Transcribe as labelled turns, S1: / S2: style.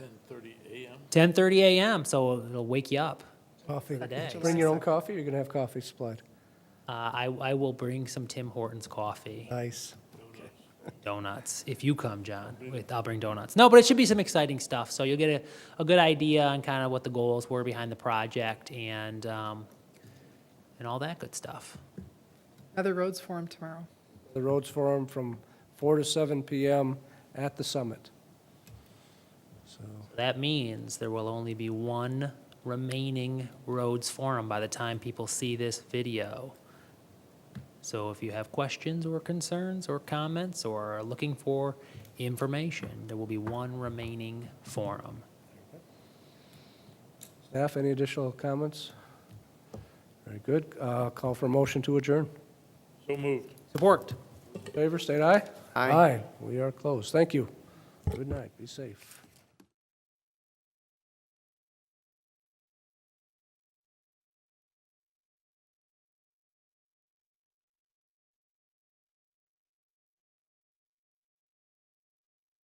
S1: 10:30 a.m. So it'll wake you up.
S2: Coffee.
S1: day.
S2: Bring your own coffee, or you're going to have coffee supplied.
S1: Uh, I I will bring some Tim Hortons coffee,
S2: Nice.
S1: donuts if you come, John. With, I'll bring donuts. No, but it should be some exciting stuff. So you'll get a, a good idea on kind of what the goals were behind the project and um, and all that good stuff.
S3: Other roads for him tomorrow.
S2: The Roads Forum from 4 to 7 PM at the summit. So,
S1: That means there will only be one remaining roads forum by the time people see this video. So if you have questions or concerns or comments or are looking for information, there will be one remaining forum.
S2: staff, any additional comments? Very good. Uh, Call for a motion to adjourn.
S4: So moved.
S1: Support.
S2: Favor, state aye.
S5: Aye.
S2: Aye. We are closed. Thank you. Good night. Be safe.